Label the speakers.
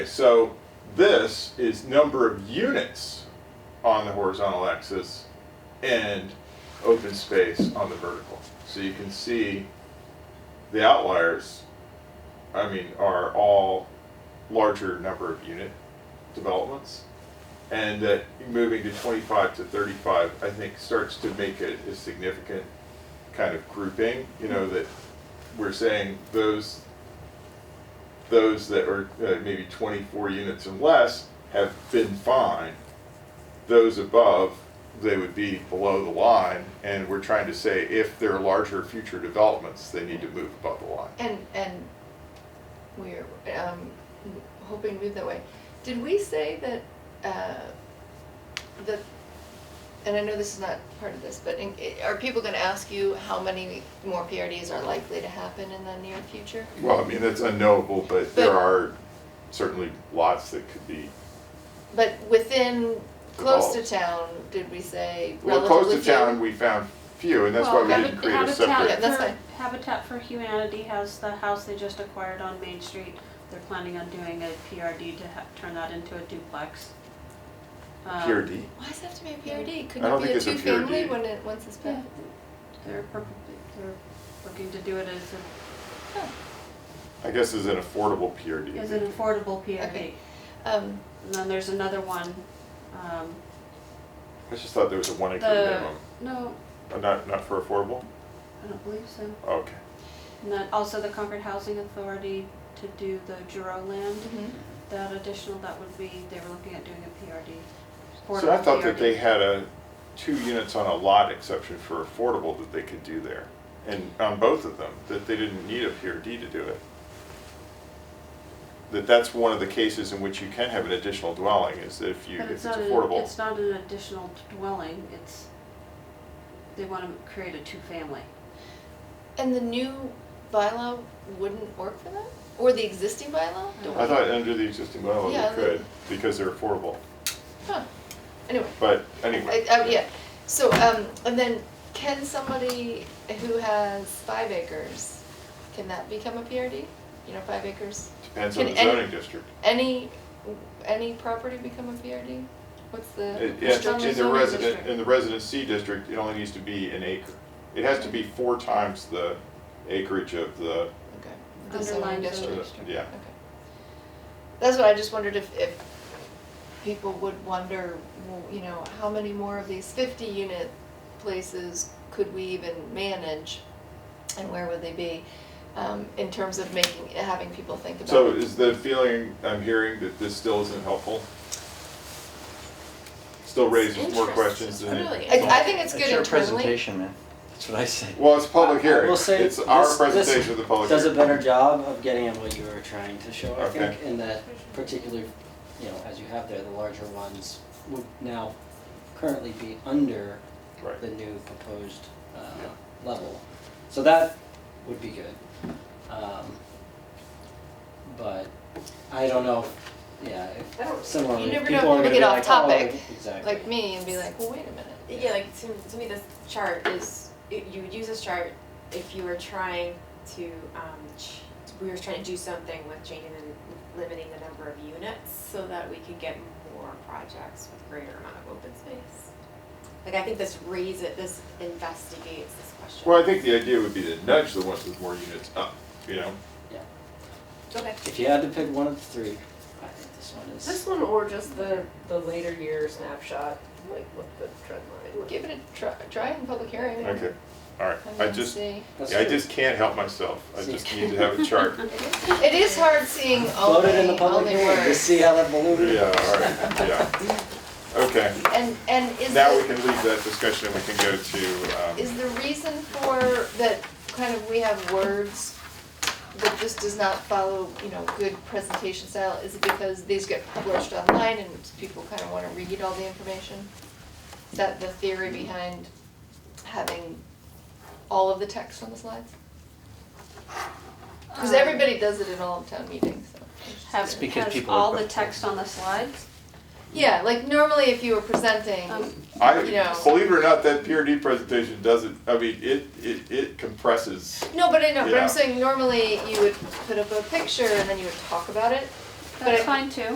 Speaker 1: So this is number of units on the horizontal axis and open space on the vertical. So you can see the outliers, I mean, are all larger number of unit developments. And that moving to 25 to 35, I think, starts to make it a significant kind of grouping, you know, that we're saying those those that are uh, maybe 24 units and less have been fine. Those above, they would be below the line, and we're trying to say if there are larger future developments, they need to move above the line.
Speaker 2: And, and we're, um, hoping to move that way. Did we say that, uh, that, and I know this is not part of this, but in- are people gonna ask you how many more PRDs are likely to happen in the near future?
Speaker 1: Well, I mean, that's unknowable, but there
Speaker 2: But-
Speaker 1: are certainly lots that could be,
Speaker 2: But within, close to
Speaker 1: Devolved.
Speaker 2: town, did we say
Speaker 1: well,
Speaker 2: relatively?
Speaker 1: close to town, we found few, and that's why
Speaker 3: Well,
Speaker 1: we didn't
Speaker 3: Habit-
Speaker 1: create a
Speaker 3: Habitat
Speaker 2: Yeah,
Speaker 1: separate.
Speaker 2: that's
Speaker 3: for-
Speaker 2: fine.
Speaker 3: Habitat for Humanity has the house they just acquired on Main Street. They're planning on doing a PRD to ha- turn that into a duplex. Um,
Speaker 1: PRD.
Speaker 2: Why does it have to be a PRD?
Speaker 1: I
Speaker 2: Couldn't
Speaker 1: don't think
Speaker 2: it be a
Speaker 1: it's a
Speaker 2: two-family
Speaker 1: PRD.
Speaker 2: when it, once it's built?
Speaker 3: Yeah, They're, prob- they're looking to do it as, a-
Speaker 1: I guess is an affordable PRD.
Speaker 3: as an affordable PRD.
Speaker 2: Mm-hmm. Okay. Um,
Speaker 3: And then there's another one, um,
Speaker 1: I just thought there was a one acre
Speaker 3: the,
Speaker 1: minimum,
Speaker 3: no,
Speaker 1: Uh, not, not for affordable?
Speaker 3: I don't believe so.
Speaker 1: Okay.
Speaker 3: And then also the Concord Housing Authority to do the Juro land.
Speaker 2: mhm.
Speaker 3: That additional, that would be, they were looking at doing a PRD.
Speaker 1: So I
Speaker 3: affordable
Speaker 1: thought that they
Speaker 3: PRD.
Speaker 1: had a, two units on a lot exception for affordable that they could do there. And on both of them, that they didn't need a PRD to do it. That that's one of the cases in which you can have an additional dwelling, is that if you,
Speaker 3: But
Speaker 1: if it's
Speaker 3: not an-
Speaker 1: affordable.
Speaker 3: It's not an additional dwelling, it's, they want to create a two-family.
Speaker 2: And the new bylaw wouldn't work for that? Or the existing bylaw? Don't
Speaker 1: I
Speaker 2: we-
Speaker 1: thought under the existing bylaw
Speaker 2: Yeah,
Speaker 1: they could, because they're affordable,
Speaker 2: Huh, anyway.
Speaker 1: but
Speaker 2: I,
Speaker 1: anyway.
Speaker 2: I, oh, yeah, so, um, and then can somebody who has five acres, can that become a PRD? You know, five acres?
Speaker 1: Depends on
Speaker 2: Can
Speaker 1: the
Speaker 2: any-
Speaker 1: zoning district.
Speaker 2: Any, any property become a PRD? What's the?
Speaker 1: It-
Speaker 3: It's
Speaker 1: yeah,
Speaker 3: on the
Speaker 1: In the
Speaker 3: zoning
Speaker 1: resident,
Speaker 3: district.
Speaker 1: in the residency district, it only needs to be an acre. It has to be four times the acreage of the
Speaker 2: Okay. The zoning
Speaker 3: Underlying
Speaker 1: So,
Speaker 2: district.
Speaker 3: zoning.
Speaker 1: Yeah,
Speaker 2: Okay. That's what I just wondered if, if people would wonder, well, you know, how many more of these fifty unit places could we even manage? And where would they be, um, in terms of making, having people think about it?
Speaker 1: so is the feeling I'm hearing that this still isn't helpful? Still raises more
Speaker 4: interesting.
Speaker 1: questions than it.
Speaker 4: Really?
Speaker 2: I, I think it's good
Speaker 4: It's your
Speaker 2: internally.
Speaker 4: presentation, man. That's what I say.
Speaker 1: Well, it's public
Speaker 4: I
Speaker 1: hearing,
Speaker 4: will
Speaker 1: it's
Speaker 4: say
Speaker 1: our
Speaker 4: this- this
Speaker 1: presentation of the public
Speaker 4: Does a
Speaker 1: hearing.
Speaker 4: better job of getting at what you were trying to show, I think,
Speaker 1: Oh, Okay.
Speaker 4: in that particular, you know, as you have there, the larger ones would now currently be under
Speaker 1: Right.
Speaker 4: the new proposed uh,
Speaker 1: Yeah.
Speaker 4: level. So that would be good. Um, But I don't know, if- yeah, if
Speaker 5: I don't-
Speaker 4: similarly,
Speaker 2: you
Speaker 4: if
Speaker 2: never
Speaker 4: people
Speaker 2: know if
Speaker 4: are
Speaker 2: we're
Speaker 4: gonna
Speaker 2: gonna
Speaker 4: be
Speaker 2: get
Speaker 4: like,
Speaker 2: off
Speaker 4: oh,
Speaker 2: topic,
Speaker 4: exactly.
Speaker 2: Like me and be like, well, wait a minute.
Speaker 5: Yeah, like to, to me, this chart is it, you would use this chart if you were trying to um, ch- we were trying to do something with changing and limiting the number of units so that we could get more projects with greater amount of open space. Like I think this raises this investigates this question.
Speaker 1: Well, I think the idea would be to nudge the ones with more units up, you know?
Speaker 5: Okay.
Speaker 4: If you had to pick one of the three, I think this one is.
Speaker 6: This one or just the, the later year snapshot, like what the trend line was.
Speaker 2: Give it a try, try it in public hearing.
Speaker 1: Okay, all right,
Speaker 2: And
Speaker 1: I
Speaker 2: then
Speaker 1: just,
Speaker 2: see.
Speaker 4: That's
Speaker 1: yeah, I
Speaker 4: true.
Speaker 1: just can't help myself, I
Speaker 4: See.
Speaker 1: just need to have a chart.
Speaker 2: It is hard seeing all
Speaker 4: Float
Speaker 2: the,
Speaker 4: it in the
Speaker 2: all
Speaker 4: public
Speaker 2: the
Speaker 4: hearing, to
Speaker 2: words.
Speaker 4: see how that balloon.
Speaker 1: Yeah, all right, yeah. Okay,
Speaker 2: And, and is
Speaker 1: now
Speaker 2: the-
Speaker 1: we can leave that discussion and we can go to, um,
Speaker 2: Is the reason for that kind of we have words that just does not follow, you know, good presentation style, is it because these get published online and people kind of want to read all the information? Is that the theory behind having all of the text on the slides? Because
Speaker 3: Um,
Speaker 2: everybody does it in all of town meetings, so.
Speaker 3: Have,
Speaker 4: It's because
Speaker 3: Um, has
Speaker 4: people are
Speaker 3: all
Speaker 4: both-
Speaker 3: the text on the slides.
Speaker 2: Yeah, like normally if you were presenting,
Speaker 3: Um,
Speaker 1: I,
Speaker 2: you know.
Speaker 1: believe it or not, that PRD presentation doesn't, I mean, it, it, it compresses.
Speaker 2: No, but I know, but
Speaker 1: Yeah.
Speaker 2: I'm saying normally you would put up a picture and then you would talk about it. But I-
Speaker 3: That's fine too.